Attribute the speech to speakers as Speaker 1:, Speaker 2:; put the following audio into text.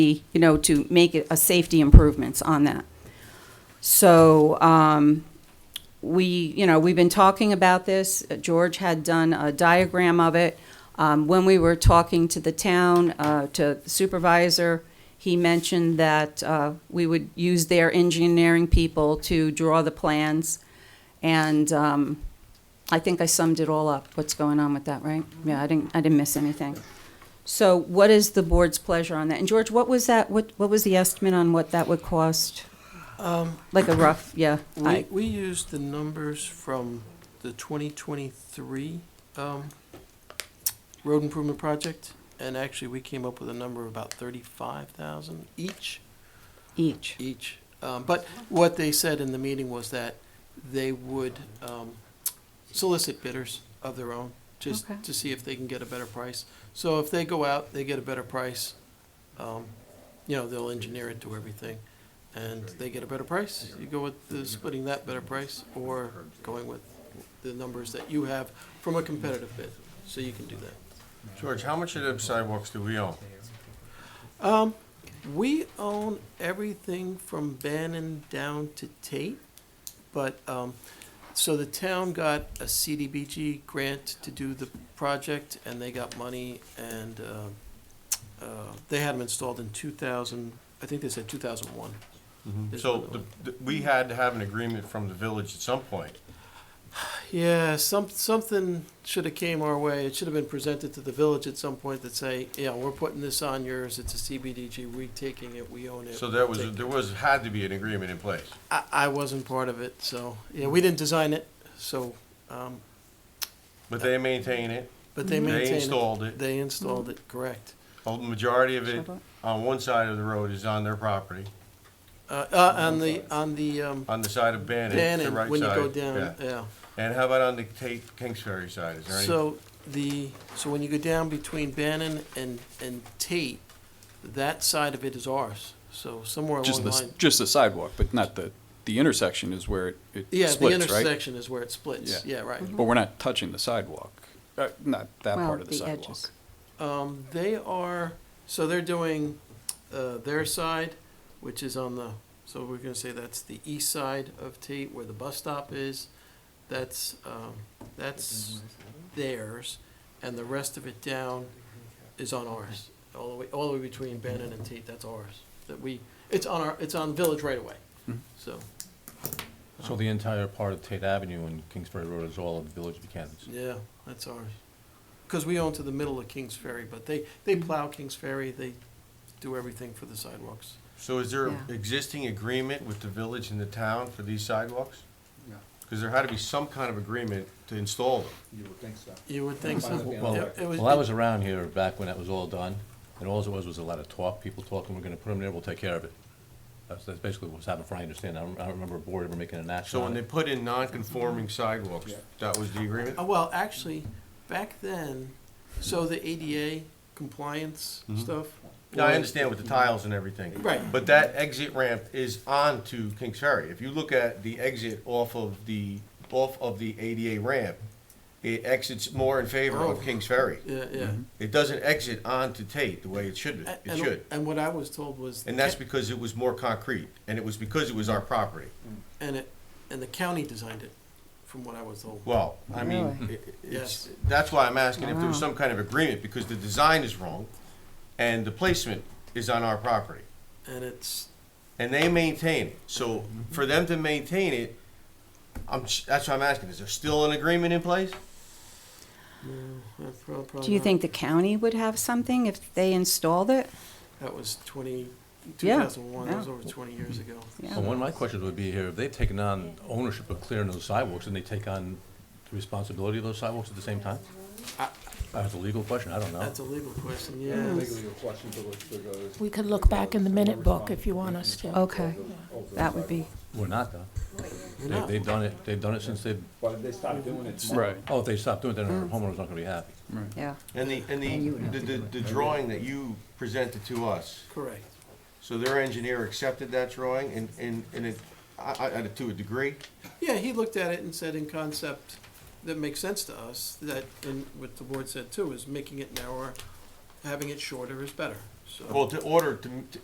Speaker 1: you know, to make it a safety improvements on that. So, um, we, you know, we've been talking about this. George had done a diagram of it. Um, when we were talking to the town, uh, to the supervisor, he mentioned that, uh, we would use their engineering people to draw the plans. And, um, I think I summed it all up, what's going on with that, right? Yeah, I didn't, I didn't miss anything. So what is the board's pleasure on that? And George, what was that, what, what was the estimate on what that would cost? Like a rough, yeah.
Speaker 2: Um, We,
Speaker 1: I-
Speaker 2: we used the numbers from the twenty twenty-three, um, road improvement project, and actually, we came up with a number of about thirty-five thousand each.
Speaker 1: Each.
Speaker 2: Each, um, but what they said in the meeting was that they would, um, solicit bidders of their own, just
Speaker 1: Okay.
Speaker 2: to see if they can get a better price. So if they go out, they get a better price, um, you know, they'll engineer it to everything, and they get a better price. You go with the, splitting that better price, or going with the numbers that you have from a competitive bid, so you can do that.
Speaker 3: George, how much of the sidewalks do we own?
Speaker 2: Um, we own everything from Bannon down to Tate, but, um, so the town got a CDBG grant to do the project, and they got money, and, uh, uh, they had them installed in two thousand, I think they said two thousand one. Mm-hmm.
Speaker 3: So the- the- we had to have an agreement from the village at some point.
Speaker 2: Yeah, some, something should have came our way. It should have been presented to the village at some point that say, yeah, we're putting this on yours, it's a CBDG, we taking it, we own it.
Speaker 3: So there
Speaker 2: Take
Speaker 3: was, there was, had to be an agreement in place.
Speaker 2: I, I wasn't part of it, so, yeah, we didn't design it, so, um,
Speaker 3: But they maintain it,
Speaker 2: but they maintained it.
Speaker 3: they installed it,
Speaker 2: They installed it, correct.
Speaker 3: a majority of it
Speaker 1: Shovel.
Speaker 3: on one side of the road is on their property,
Speaker 2: Uh, uh, on the, on the, um,
Speaker 3: on the side of Bannon, it's the
Speaker 2: Bannon,
Speaker 3: right
Speaker 2: when you go
Speaker 3: side.
Speaker 2: down, uh,
Speaker 3: yeah.
Speaker 2: yeah.
Speaker 3: And how about on the Tate, Kings Ferry side, is there any?
Speaker 2: So the, so when you go down between Bannon and, and Tate, that side of it is ours, so somewhere along
Speaker 4: Just
Speaker 2: the
Speaker 4: the,
Speaker 2: line.
Speaker 4: just the sidewalk, but not the, the intersection is where it- it
Speaker 2: Yeah, the
Speaker 4: splits, right?
Speaker 2: intersection is where it splits, yeah,
Speaker 4: Yeah.
Speaker 2: right.
Speaker 4: But we're not touching the sidewalk, Uh, not that
Speaker 1: Well,
Speaker 4: part of the
Speaker 1: the
Speaker 4: sidewalk.
Speaker 1: edges.
Speaker 2: Um, they are, so they're doing, uh, their side, which is on the, so we're gonna say that's the east side of Tate where the bus stop is. That's, um, that's theirs, and the rest of it down is on ours. All the way, all the way between Bannon and Tate, that's ours, that we, it's on our, it's on village right away, so,
Speaker 5: So the entire part of Tate Avenue and Kingsbury Road is all of the Village of Buchanan's?
Speaker 2: yeah, that's ours. Cause we own to the middle of Kings Ferry, but they, they plow Kings Ferry, they do everything for the sidewalks.
Speaker 3: So is there
Speaker 1: Yeah.
Speaker 3: existing agreement with the village and the town for these sidewalks? Because there had to be some kind of agreement to install them.
Speaker 6: You would think so.
Speaker 2: You would think so.
Speaker 5: Well,
Speaker 2: It- it
Speaker 5: well, I was around here back when that was all done, and all it was was a lot of talk, people talking, we're gonna put them there, we'll take care of it. That's, that's basically what's happened, from what I understand. I don't, I don't remember a board ever making an action
Speaker 3: So when
Speaker 5: on
Speaker 3: they
Speaker 5: it.
Speaker 3: put in non-conforming sidewalks, that was the agreement?
Speaker 2: Uh, Well, actually, back then, so the ADA compliance stuff.
Speaker 3: Yeah, I
Speaker 2: was-
Speaker 3: understand with the tiles and everything.
Speaker 2: Right.
Speaker 3: But that exit ramp is onto Kings Ferry. If you look at the exit off of the, off of the ADA ramp, it exits more in favor
Speaker 2: Oh.
Speaker 3: of Kings Ferry.
Speaker 2: Yeah, yeah.
Speaker 3: It doesn't exit onto Tate the way it should,
Speaker 2: A-
Speaker 3: Mm-hmm. it
Speaker 2: and-
Speaker 3: should.
Speaker 2: And what I was told was.
Speaker 3: And that's because it was more concrete, and it was because it was our property.
Speaker 2: And it, and the county designed it, from what I was told.
Speaker 3: Well, I mean,
Speaker 1: Really?
Speaker 3: it- it's,
Speaker 2: Yes.
Speaker 3: that's why I'm asking if there was
Speaker 1: Wow.
Speaker 3: some kind of agreement, because the design is wrong, and the placement is on our property.
Speaker 2: And it's,
Speaker 3: and they maintain it. So for them to maintain it, I'm that's what I'm asking. Is there still an agreement in place?
Speaker 2: uh, prob- probably.
Speaker 1: Do you
Speaker 2: not-
Speaker 1: think the county would have something if they installed it?
Speaker 2: That was twenty, two
Speaker 1: Yeah,
Speaker 2: thousand one, that was
Speaker 1: yeah.
Speaker 2: over twenty years ago.
Speaker 1: Yeah.
Speaker 5: Well, one of my questions would be here, if they've taken on ownership of clearing those sidewalks, and they take on the responsibility of those sidewalks at the same time?
Speaker 2: I-
Speaker 5: That's a legal question, I don't know.
Speaker 2: That's a legal question, yeah.
Speaker 6: Legally, a question to look to go.
Speaker 7: We could look back in the minute book if you want us to.
Speaker 1: Okay, that would be,
Speaker 5: We're not, though. They,
Speaker 2: not.
Speaker 5: they've done it, they've done it since they've,
Speaker 6: But if they stop doing it tomorrow.
Speaker 4: Right.
Speaker 5: oh, if they stop doing it, then
Speaker 2: Mm.
Speaker 5: our homeowner's not gonna be happy.
Speaker 1: yeah.
Speaker 3: And the and the the, the, the drawing that you presented to us.
Speaker 2: Correct.
Speaker 3: So their engineer accepted that drawing, and and and it, I, I, to a degree.
Speaker 2: Yeah, he looked at it and said in concept, that makes sense to us, that, and what the board said too, is making it narrower, having it shorter is better. so.
Speaker 3: Well, to order, to,